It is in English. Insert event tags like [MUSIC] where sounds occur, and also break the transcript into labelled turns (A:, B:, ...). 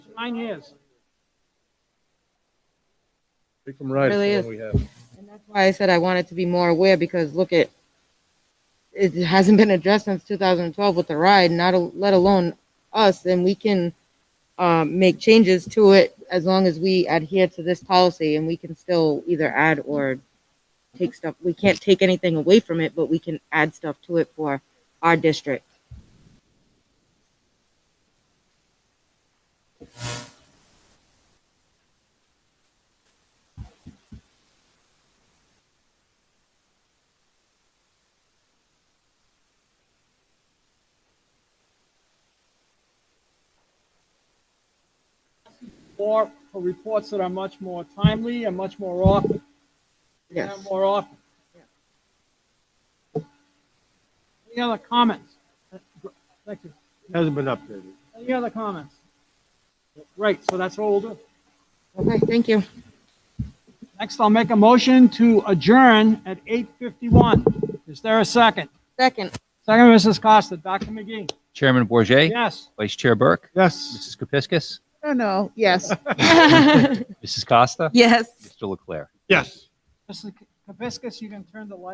A: Mine is.
B: Pick them right. is
C: Really
B: the
C: is.
B: one we have.
C: And that's why I said I wanted to be more aware because look at, it hasn't been addressed since 2012 with the ride, not, a- let alone us, and we can um, make changes to it as long as we adhere to this policy and we can still either add or take stuff, we can't take anything away from it, but we can add stuff to it for our district.
A: Or for reports that are much more timely and much more often.
C: Yes.
A: More often. Any other comments? Thank you.
D: Hasn't been updated.
A: Any other comments? Great, so that's what we'll do.
C: Okay, thank you.
A: Next, I'll make a motion to adjourn at 8:51. Is there a second?
C: Second,
A: Second, Mrs. Costa. Dr. McGee?
E: Chairman Bourget,
A: Yes.
E: Vice Chair Burke,
D: Yes.
E: Mrs. Kepiscus,
F: No, no,
C: [LAUGHS]
F: yes.
E: Mrs. Costa,
C: yes.
E: Mr. Leclerc.
D: Yes.
A: Mrs. Kapiskas, you can turn the light